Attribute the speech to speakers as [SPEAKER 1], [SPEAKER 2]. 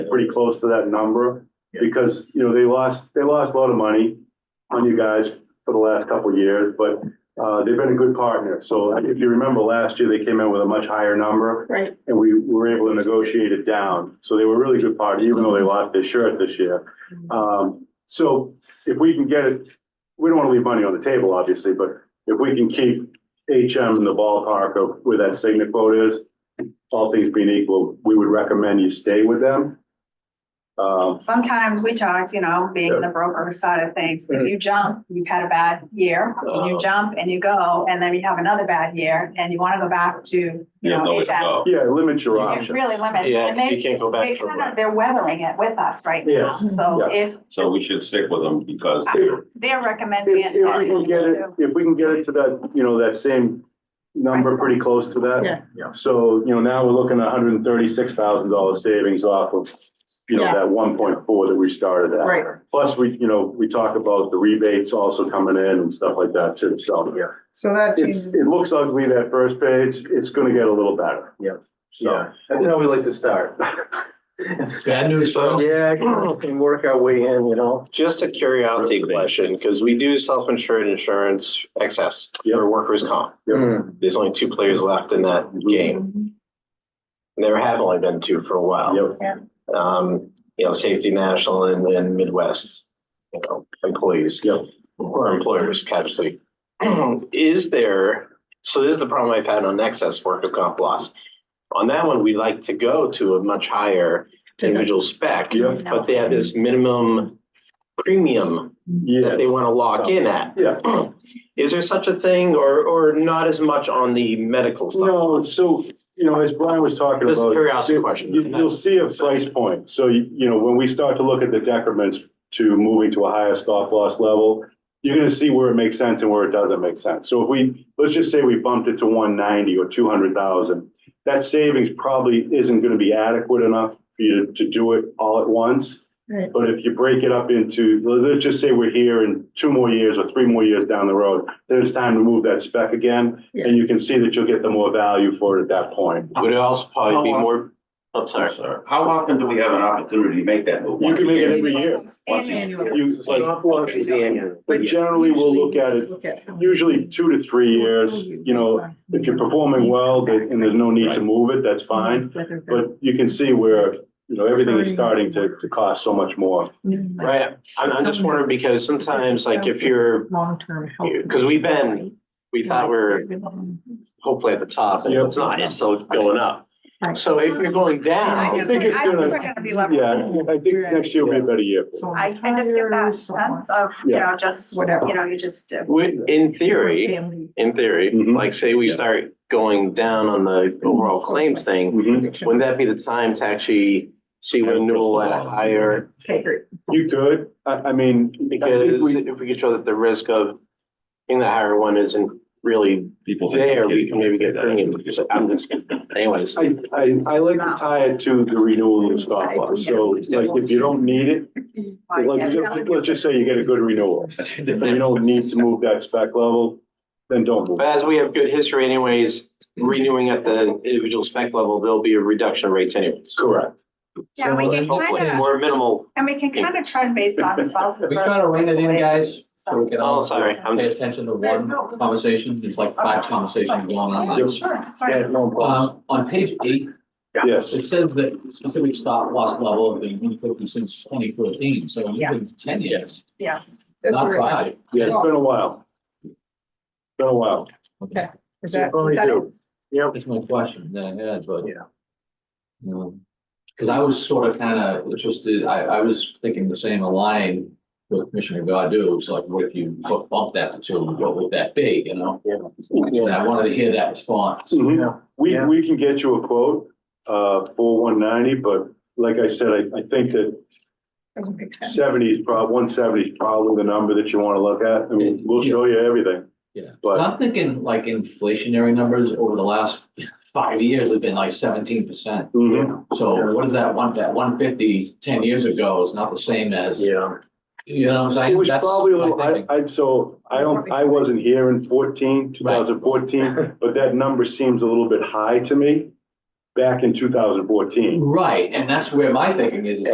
[SPEAKER 1] pretty close to that number.
[SPEAKER 2] Yeah.
[SPEAKER 1] Because, you know, they lost, they lost a lot of money on you guys for the last couple of years, but, uh, they've been a good partner. So if you remember last year, they came in with a much higher number
[SPEAKER 3] Right,
[SPEAKER 1] and we were able to negotiate it down. So they were a really good party, even though they lost their shirt this year. Um, so if we can get it, we don't want to leave money on the table, obviously, but if we can keep HM in the ballpark of where that signet quote is, all things being equal, we would recommend you stay with them. Um,
[SPEAKER 3] sometimes we talk, you know, being the broker side of things,
[SPEAKER 1] Mm-hmm.
[SPEAKER 3] if you jump, you've had a bad year, and
[SPEAKER 1] Uh-huh.
[SPEAKER 3] you jump and you go, and then you have another bad year, and you wanna go back to, you
[SPEAKER 2] You have
[SPEAKER 3] know,
[SPEAKER 2] nowhere to
[SPEAKER 3] HF.
[SPEAKER 2] go.
[SPEAKER 1] yeah, limit your
[SPEAKER 3] It
[SPEAKER 1] options.
[SPEAKER 3] really limits,
[SPEAKER 4] Yeah,
[SPEAKER 3] and
[SPEAKER 4] 'cause
[SPEAKER 3] they,
[SPEAKER 4] you can't go
[SPEAKER 3] they
[SPEAKER 4] back. for
[SPEAKER 3] kind of,
[SPEAKER 4] it.
[SPEAKER 3] they're weathering it with us right now,
[SPEAKER 1] Yes.
[SPEAKER 3] so
[SPEAKER 1] Yeah.
[SPEAKER 3] if
[SPEAKER 2] So we should stick with them because
[SPEAKER 3] uh,
[SPEAKER 2] they're,
[SPEAKER 3] they're recommending.
[SPEAKER 1] If, if we can get it,
[SPEAKER 3] it,
[SPEAKER 1] if we can get it to that, you know, that same number, pretty close to that.
[SPEAKER 5] Yeah.
[SPEAKER 2] Yeah.
[SPEAKER 1] So, you know, now we're looking at hundred and thirty-six thousand dollar savings off of, you know,
[SPEAKER 5] Yeah.
[SPEAKER 1] that one point four that we started at.
[SPEAKER 5] Right.
[SPEAKER 1] Plus, we, you know, we talk about the rebates also coming in and stuff like that too, so. Yeah.
[SPEAKER 5] So that
[SPEAKER 1] It's,
[SPEAKER 5] changes.
[SPEAKER 1] it looks ugly, that first page, it's gonna get a little better.
[SPEAKER 6] Yeah.
[SPEAKER 1] So,
[SPEAKER 6] That's how we like to start.
[SPEAKER 4] Bad news, bro.
[SPEAKER 6] Yeah, we can work our way in, you know?
[SPEAKER 4] Just a curiosity question, because we do self-insured insurance excess
[SPEAKER 1] Yeah.
[SPEAKER 4] for workers' comp. There's only two players left in that game.
[SPEAKER 3] Mm-hmm.
[SPEAKER 4] There have only been two for a while.
[SPEAKER 1] yep,
[SPEAKER 4] Um, you know, Safety National and, and Midwest, you know, employees.
[SPEAKER 1] Yep.
[SPEAKER 4] Or employers casually. Is there, so this is the problem I've had on excess workers' comp loss. On that one, we like to go to a much higher individual spec.
[SPEAKER 1] yep,
[SPEAKER 4] But they have this minimum premium that they
[SPEAKER 1] yeah,
[SPEAKER 4] want to lock in at.
[SPEAKER 1] yeah.
[SPEAKER 4] Is there such a thing or, or not as much on the medical stuff?
[SPEAKER 1] No, so, you know, as Brian was talking
[SPEAKER 4] Just a
[SPEAKER 1] about.
[SPEAKER 4] curiosity
[SPEAKER 1] you-
[SPEAKER 4] question.
[SPEAKER 1] you- You'll see a price point. So, you you know, when we start to look at the decrements to moving to a higher stop loss level, you're gonna see where it makes sense and where it doesn't make sense. So if we, let's just say we bumped it to one ninety or two hundred thousand, that savings probably isn't gonna be adequate enough for you to do it all at once.
[SPEAKER 5] Right.
[SPEAKER 1] But if you break it up into, let's just say we're here in two more years or three more years down the road, then it's time to move that spec again.
[SPEAKER 5] Yeah.
[SPEAKER 1] And you can see that you'll get the more value for it at that point.
[SPEAKER 4] Would it also probably be more, I'm
[SPEAKER 2] I'm
[SPEAKER 4] sorry.
[SPEAKER 2] sorry. How often do we have an opportunity to make that move?
[SPEAKER 1] You can make it every
[SPEAKER 5] Annual.
[SPEAKER 1] year.
[SPEAKER 2] Once a
[SPEAKER 5] Annual.
[SPEAKER 2] year.
[SPEAKER 1] You, like,
[SPEAKER 6] Stop loss is annual.
[SPEAKER 1] but generally, we'll look at it,
[SPEAKER 5] Look at how many
[SPEAKER 1] usually two to three years, you know, if you're performing well, that- and there's no need to move it, that's fine.
[SPEAKER 5] Whether-
[SPEAKER 1] But you can see where, you know, everything is starting to, to cost so much more.
[SPEAKER 5] Like
[SPEAKER 4] Right, I'm, I'm just wondering because sometimes like if you're,
[SPEAKER 5] long-term health.
[SPEAKER 4] 'Cause we've been-
[SPEAKER 5] conditions,
[SPEAKER 4] we
[SPEAKER 5] right?
[SPEAKER 4] thought we're hopefully at the top and it's not, it's still going up. So if you're going
[SPEAKER 1] I
[SPEAKER 4] down,
[SPEAKER 1] think it's
[SPEAKER 3] I think
[SPEAKER 1] gonna-
[SPEAKER 3] we're gonna be level.
[SPEAKER 1] Yeah, I think next year will be a better year.
[SPEAKER 5] So
[SPEAKER 3] I, I just get that
[SPEAKER 5] tires, so on.
[SPEAKER 3] sense of, you
[SPEAKER 1] Yeah.
[SPEAKER 3] know, just, you
[SPEAKER 5] Whatever.
[SPEAKER 3] know, you just, uh,
[SPEAKER 4] we, in theory,
[SPEAKER 5] Family
[SPEAKER 4] in theory,
[SPEAKER 1] Mhm.
[SPEAKER 4] like say we
[SPEAKER 1] Yeah.
[SPEAKER 4] start going down on the overall claims thing,
[SPEAKER 1] Mhm.
[SPEAKER 5] addiction.
[SPEAKER 4] wouldn't that be the time to actually see
[SPEAKER 2] Yeah,
[SPEAKER 4] renewal at
[SPEAKER 2] crystal
[SPEAKER 4] a
[SPEAKER 2] ball.
[SPEAKER 4] higher?
[SPEAKER 5] Okay, great.
[SPEAKER 1] You could, I, I mean. I think
[SPEAKER 4] Because
[SPEAKER 1] we-
[SPEAKER 4] if we could show that the risk of in the higher one isn't really
[SPEAKER 2] People. think
[SPEAKER 4] there,
[SPEAKER 2] they're
[SPEAKER 4] we can maybe get
[SPEAKER 2] that.
[SPEAKER 4] premium. Just- I'm just, anyways.
[SPEAKER 1] I, I, I like to tie it to the renewal of stop loss. So like, if you don't need it, like, just- let's just say you get a good renewal. And you don't need to move that spec level, then don't move.
[SPEAKER 4] But as we have good history anyways, renewing at the individual spec level, there'll be a reduction of rates anyways.
[SPEAKER 1] Correct.
[SPEAKER 3] yeah, we can
[SPEAKER 4] Hopefully,
[SPEAKER 3] kinda,
[SPEAKER 4] more minimal.
[SPEAKER 3] and we can kinda trend based on spouses.
[SPEAKER 7] We kind of rein it in, guys, so we can
[SPEAKER 4] Oh,
[SPEAKER 7] all
[SPEAKER 4] sorry, I'm
[SPEAKER 7] pay
[SPEAKER 4] just,
[SPEAKER 7] attention to one conversation. There's like five conversations going on.
[SPEAKER 3] Yeah, Sure, sorry.
[SPEAKER 6] Yeah, no problem.
[SPEAKER 7] Um, on page eight,
[SPEAKER 1] Yes.
[SPEAKER 7] it says that specific stop loss level of the one fifty since twenty fourteen, so it's
[SPEAKER 3] Yeah.
[SPEAKER 7] been ten years,
[SPEAKER 5] That's
[SPEAKER 7] not
[SPEAKER 5] very-
[SPEAKER 7] five.
[SPEAKER 1] Yeah, it's been a while. Been a while.
[SPEAKER 5] Okay. Is that,
[SPEAKER 6] Only
[SPEAKER 5] is that it?
[SPEAKER 6] do. Yep.
[SPEAKER 7] That's my question that I had, but.
[SPEAKER 6] Yeah.
[SPEAKER 7] Um, Cause I was sort of kind of interested, I, I was thinking the same line with Commissioner Godu, it's like, what if you bu- bump that to two, what would that be, you know? And I wanted to hear that response.
[SPEAKER 1] Mhm.
[SPEAKER 6] Yeah.
[SPEAKER 1] We,
[SPEAKER 6] Yeah.
[SPEAKER 1] we can get you a quote, uh, for one ninety, but like I said, I, I think that
[SPEAKER 5] Doesn't make sense.
[SPEAKER 1] seventy is prob, one seventy is probably the number that you want to look at. I mean, we'll show you everything.
[SPEAKER 7] Yeah.
[SPEAKER 1] But-
[SPEAKER 7] I'm thinking like inflationary numbers over the last five years have been like seventeen percent.
[SPEAKER 1] Mhm.
[SPEAKER 7] So what is that one, that one fifty ten years ago is not the same as, you
[SPEAKER 6] Yeah.
[SPEAKER 7] know what I'm saying?
[SPEAKER 1] It was
[SPEAKER 7] That's
[SPEAKER 1] probably a
[SPEAKER 7] my
[SPEAKER 1] little, I,
[SPEAKER 7] thinking.
[SPEAKER 1] I, so, I don't, I wasn't here in 14, 2014, but that number seems a little bit high to me. back in two thousand fourteen.
[SPEAKER 7] Right, and that's where my thinking is, is